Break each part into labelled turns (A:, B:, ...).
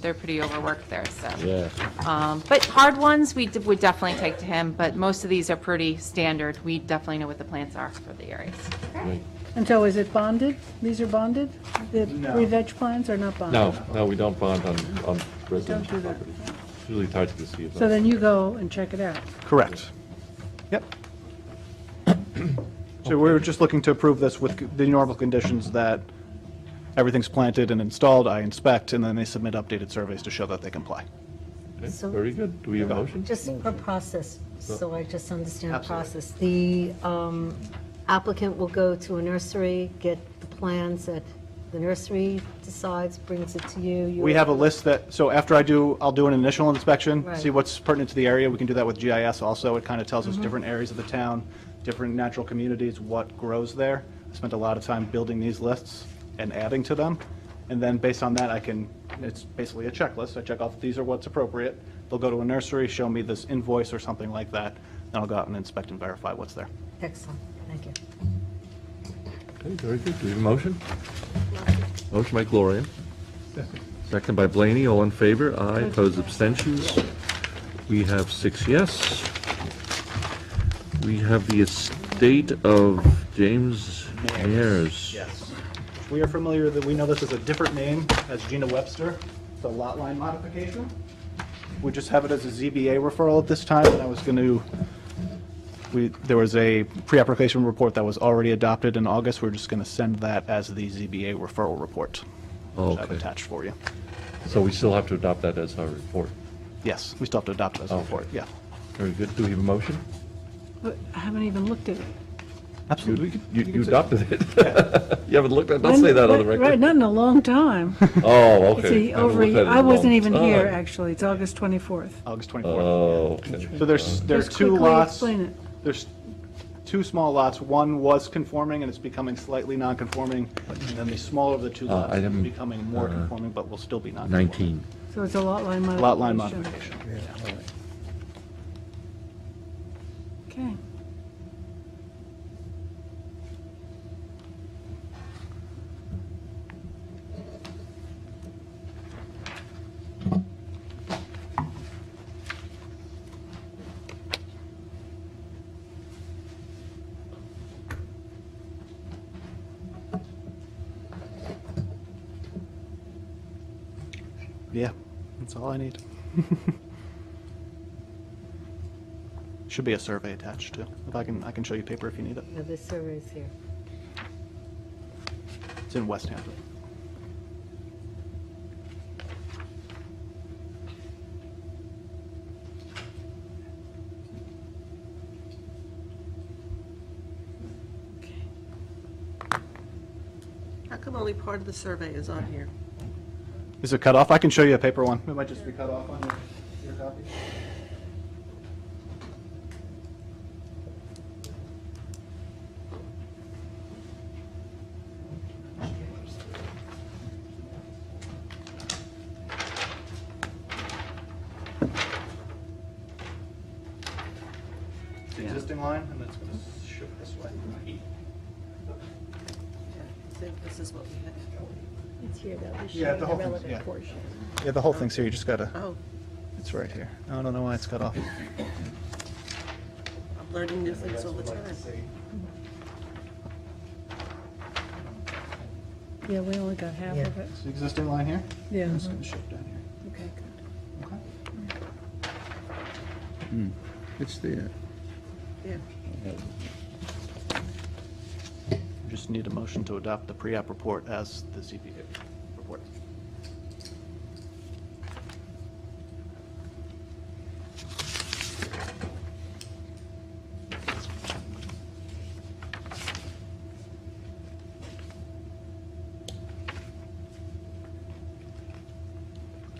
A: they're pretty overworked there, so.
B: Yeah.
A: Um, But hard ones, we d- would definitely take to him, but most of these are pretty standard. We definitely know what the plants are for the areas.
B: Right.
C: And so is it bonded? These are bonded? The
D: No.
C: re-veg plans are not bonded?
B: No, no, we don't bond on, on residential
C: do that.
B: property. It's really tied to the C of
C: So
B: O.
C: then you go and check it out.
D: Correct. Yep. So we were just looking to approve this with the normal conditions that everything's planted and installed, I inspect, and then they submit updated surveys to show that they comply.
B: Okay,
E: So-
B: Very good. Do we have a motion?
E: Just for process, so I just understand the process. The um, applicant will go to a nursery, get the plans that the nursery decides, brings it to you. you-
D: We have a list that, so after I do, I'll do an initial inspection,
E: Right.
D: see what's pertinent to the area. We can do that with GIS also. It kind of
E: Mm-hmm.
D: tells us different areas of the town, different natural communities, what grows there. I spent a lot of time building these lists and adding to them. And then based on that, I can, it's basically a checklist. I check off, these are what's appropriate. They'll go to a nursery, show me this invoice or something like that. Then I'll go out and inspect and verify what's there.
E: Excellent, thank you.
B: Okay, very good. Do we have a motion? Motion by Gloria. Second by Blaney. All in favor? Aye. Opposed, abstentions? We have six yes. We have the estate of James Ayers.
D: Yes. We are familiar that, we know this is a different name as Gina Webster, the lot line modification. We just have it as a ZBA referral at this time, and I was going to, we, there was a pre-application report that was already adopted in August. We're just going to send that as the ZBA referral report. which I've
B: Okay.
D: attached for you.
B: So we still have to adopt that as our report.
D: Yes, we still have to adopt it as a
B: Okay.
D: report, yeah.
B: Very good. Do we have a motion?
C: But I haven't even looked at it.
D: Absolutely.
B: You, you adopted it. You haven't looked at, don't say that on the
C: Right, Right,
B: record.
C: not in a long time.
B: Oh,
C: It's
B: okay.
C: a
B: Haven't
C: over,
B: looked at it in
C: I
B: a
C: wasn't
B: long
C: even here,
B: time.
C: actually. It's August 24th.
D: August 24th.
B: Oh, okay.
D: So there's, there are
C: Just
D: two
C: quickly
D: lots.
C: explain it.
D: There's two small lots. One was conforming and it's becoming slightly non-conforming. And then the smaller of the two
B: Uh,
D: lots is
B: item,
D: becoming more
B: uh,
D: conforming, but will still be non-conforming.
B: 19.
C: So it's a lot line modification.
D: Lot line modification.
C: Okay.
D: Yeah, that's all I need. Should be a survey attached too. If I can, I can show you paper if you need it.
E: Now, this survey is here.
D: It's in West Hampton.
F: How come only part of the survey is on here?
D: Is it cut off? I can show you a paper one. It might just be cut off on your, your copy. The existing line, and it's going to shift this way.
F: Yeah, I think This is what we had.
G: It's here, though. It's
D: Yeah,
G: showing
D: the
G: the
D: whole thing's- yeah.
G: relevant portion.
D: Yeah, the whole thing's here. You just got to,
F: Oh,
D: it's right here. I don't know why it's cut off.
F: I'm learning new things all the time.
C: Yeah, we only got half
E: Yeah.
C: of it.
D: It's the existing line here.
C: Yeah. uh-huh.
D: It's going to shift down here.
C: Okay, good.
D: Okay. Hmm.
H: It's there.
F: Yeah.
D: Just need a motion to adopt the pre-app report as the ZBA report.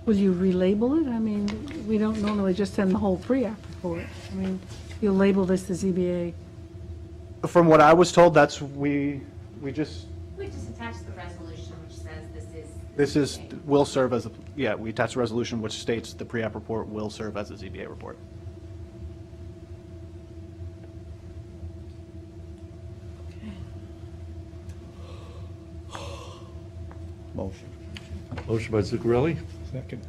C: Will you relabel it? I mean, we don't normally just send the whole pre-app report. I mean, you'll label this the ZBA.
D: From what I was told, that's, we, we just,
I: We just attach the resolution which says this is.
D: this is, will serve as, a yeah, we attach a resolution which states the pre-app report will serve as a ZBA report.
H: Motion.
B: Motion by Zuccarelli,
H: Second.